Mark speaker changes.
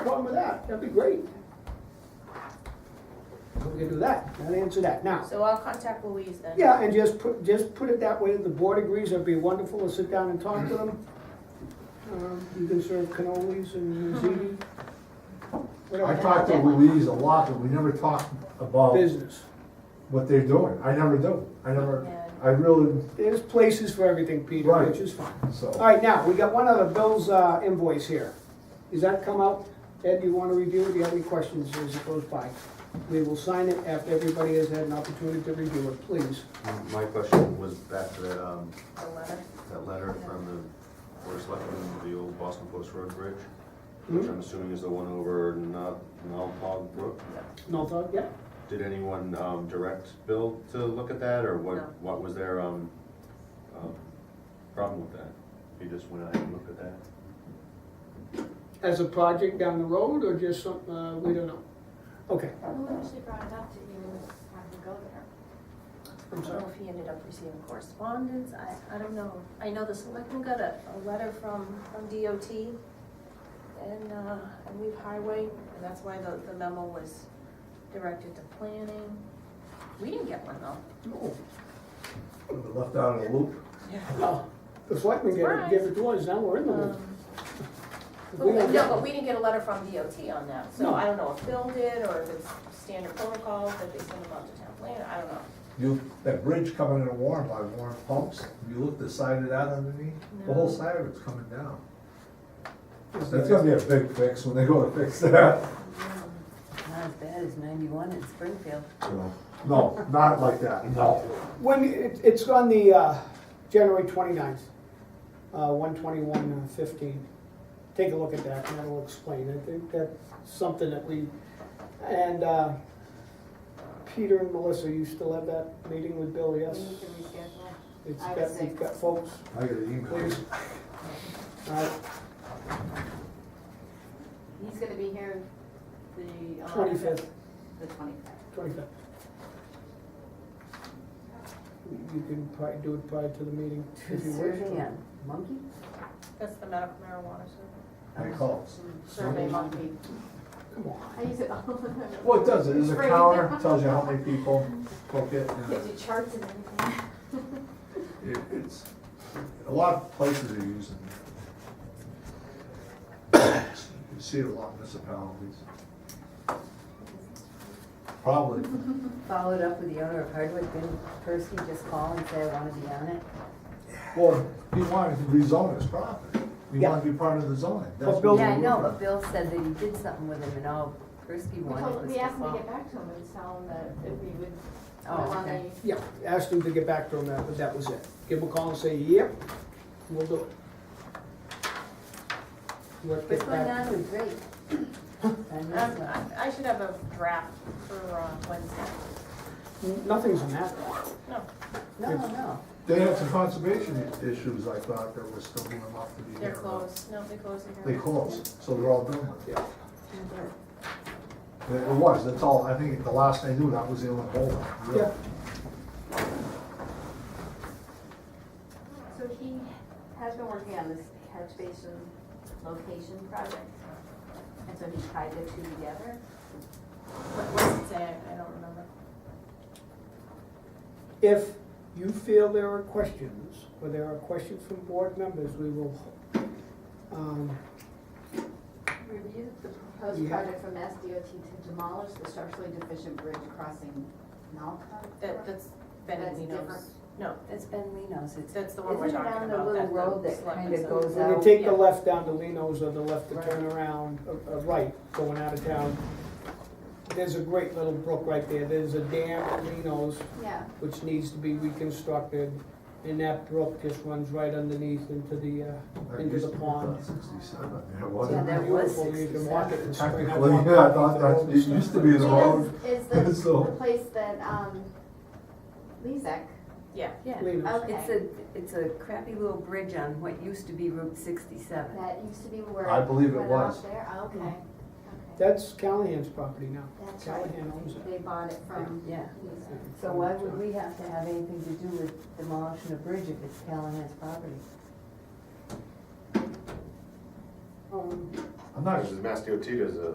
Speaker 1: problem with that, that'd be great. We can do that, that answer that. Now,
Speaker 2: So I'll contact Louise then.
Speaker 1: yeah, and just put, just put it that way, the board agrees, that'd be wonderful, we'll sit down and talk to them. Um, You can serve cannolis and ziti,
Speaker 3: I
Speaker 1: whatever,
Speaker 3: talk to Louise a lot, but we never talk about
Speaker 1: business.
Speaker 3: what they're doing. I never do. I never, I really,
Speaker 1: There's places for everything, Peter,
Speaker 3: Right.
Speaker 1: which is fine. All
Speaker 3: so.
Speaker 1: right, now, we got one other Bill's uh, invoice here. Does that come out? Ed, you want to review it? Do you have any questions as it goes by? We will sign it after everybody has had an opportunity to review it, please.
Speaker 4: My question was back to that, um,
Speaker 2: The letter.
Speaker 4: that letter from the Board of Selectmen, of the old Boston Post Road Bridge,
Speaker 1: Hmm?
Speaker 4: which I'm assuming is the one over Nal- Nalpog Brook.
Speaker 1: No thought Yeah.
Speaker 4: Did anyone, um, direct Bill to look at that, or
Speaker 2: No.
Speaker 4: what, what was their, um, um, problem with that? He just went out and looked at that?
Speaker 1: As a project down the road or just some, uh, we don't know? Okay,
Speaker 5: Who actually brought it up to you having to go there?
Speaker 2: I don't know if he ended up receiving correspondence, I, I don't know. I know the selectmen got a, a letter from, from DOT and, uh, I believe Highway, and that's why the, the memo was directed to planning. We didn't get one though.
Speaker 1: no.
Speaker 3: Left out of the loop.
Speaker 1: Oh, The selectmen gave it- gave it to us, now we're in the loop.
Speaker 2: Um,
Speaker 1: If Hmm. we
Speaker 2: but we-
Speaker 1: don't
Speaker 2: No,
Speaker 1: get
Speaker 2: but
Speaker 1: it-
Speaker 2: we didn't get a letter from DOT on that, so
Speaker 1: No.
Speaker 2: I don't know if Bill did or if it's standard protocol that they send them out to town planner, I don't know.
Speaker 3: You, that bridge coming in a warm by Warren Pumps, you look the side of that underneath, the whole
Speaker 2: No.
Speaker 3: side of it's coming down. That's gonna be a big fix when they go to fix that.
Speaker 6: Not as bad as ninety-one in Springfield.
Speaker 3: No, not like that, no.
Speaker 1: When, it- it's on the, uh, January 29th, uh, 12115. Take a look at that, and that'll explain it. I think that's something that we, and uh, Peter and Melissa, you still have that meeting with Bill, yes?
Speaker 5: We need to reschedule.
Speaker 1: It's
Speaker 5: I would
Speaker 1: got,
Speaker 5: say-
Speaker 1: we've got folks,
Speaker 3: I got an email.
Speaker 1: please. All right,
Speaker 5: He's gonna be here the. uh,
Speaker 1: 25th,
Speaker 5: The twenty-fifth.
Speaker 1: 25th. You can probably do it prior to the meeting if you wish.
Speaker 6: Survey on monkey?
Speaker 2: That's the medical marijuana survey.
Speaker 3: I calls.
Speaker 5: Survey monkey.
Speaker 1: Come on.
Speaker 5: I use it all the time.
Speaker 3: Well, it does, it is a
Speaker 5: Free.
Speaker 3: counter, tells you how many people took it. and-
Speaker 5: Gives you charts and everything.
Speaker 3: It- It's, a lot of places are using it. You see it a lot in municipalities. Probably.
Speaker 1: Mm-hmm.
Speaker 6: Followed up with the owner of Hardwick, didn't Percy just call and say, I wanna be on it?
Speaker 3: Well, he wanted to rezone his property. He wanted to be part of the zoning. That's
Speaker 1: But Bill-
Speaker 3: what
Speaker 6: Yeah, I know,
Speaker 3: we're
Speaker 6: but Bill said that he did something with him and all Persky
Speaker 5: We
Speaker 6: wanted
Speaker 5: told,
Speaker 6: was
Speaker 5: we
Speaker 6: to
Speaker 5: asked him to
Speaker 6: call.
Speaker 5: get back to him and tell him that if we would.
Speaker 6: Oh,
Speaker 5: allow
Speaker 6: okay.
Speaker 5: the-
Speaker 1: Yeah, asked him to get back to him, that- but that was it. Give him a call and say, yep, we'll do it. Work
Speaker 6: What's
Speaker 1: it
Speaker 6: going
Speaker 1: back.
Speaker 6: on with Drake? I missed
Speaker 2: Um,
Speaker 6: that.
Speaker 2: I, I should have a draft for, uh, Wednesday.
Speaker 1: Nothing's on that.
Speaker 2: No,
Speaker 6: No, no,
Speaker 3: They had some conservation issues, I thought, that were still going up to be.
Speaker 2: they're
Speaker 3: here, but
Speaker 2: closed, no, they closed in
Speaker 3: They
Speaker 2: here.
Speaker 3: closed, so they're all done with it.
Speaker 1: Yeah.
Speaker 3: It was, that's all, I think the last I knew, that was the only holdup. really.
Speaker 1: Yeah.
Speaker 5: So he has been working on this catch basin location project. And so he tied the two together.
Speaker 2: What was it say? I don't remember.
Speaker 1: If you feel there are questions, or there are questions from board members, we will, um,
Speaker 5: Review the proposed
Speaker 1: Yeah.
Speaker 5: project from S D O T to demolish the structurally deficient bridge crossing Nalco.
Speaker 2: That, that's Ben
Speaker 5: That's
Speaker 2: and Lino's.
Speaker 5: different.
Speaker 2: No,
Speaker 6: that's Ben Leno's, it's,
Speaker 2: that's the one we're
Speaker 6: Isn't it
Speaker 2: talking
Speaker 6: on the
Speaker 2: about.
Speaker 6: little
Speaker 2: that the
Speaker 6: road that
Speaker 2: selectmen
Speaker 6: kinda
Speaker 2: said.
Speaker 6: goes
Speaker 1: when you
Speaker 6: out?
Speaker 1: take the
Speaker 2: Yeah.
Speaker 1: left down to Lino's or the left to turn around, uh, uh, right, going out of town, there's a great little brook right there. There's a dam at Lino's
Speaker 5: Yeah,
Speaker 1: which needs to be reconstructed, and that brook just runs right underneath into the, uh,
Speaker 3: That
Speaker 1: into
Speaker 3: used
Speaker 1: the
Speaker 3: to be
Speaker 1: pond.
Speaker 3: about Sixty-seven, yeah,
Speaker 6: Yeah,
Speaker 3: wasn't it?
Speaker 6: that was
Speaker 1: Beautiful, you can walk it in spring.
Speaker 3: Technically, yeah, I thought that, it used to be the road.
Speaker 5: Is is the,
Speaker 3: So-
Speaker 5: the place that, um, Lezak,
Speaker 2: Yeah,
Speaker 6: yeah. Oh,
Speaker 1: Lino's.
Speaker 6: It's
Speaker 5: okay,
Speaker 6: a, it's a crappy little bridge on what used to be Route sixty-seven.
Speaker 5: that used to be where.
Speaker 3: I believe it
Speaker 5: went
Speaker 3: was. Hmm.
Speaker 5: off There, Oh, okay, okay.
Speaker 1: That's Callahan's property now.
Speaker 5: That's
Speaker 1: Callahan owns
Speaker 5: right,
Speaker 1: it.
Speaker 5: they bought it from
Speaker 6: Yeah,
Speaker 5: Lezak.
Speaker 6: so why would we have to have anything to do with demolishing a bridge if it's Callahan's property?
Speaker 1: Um,
Speaker 3: I'm not
Speaker 4: Mass DOT does a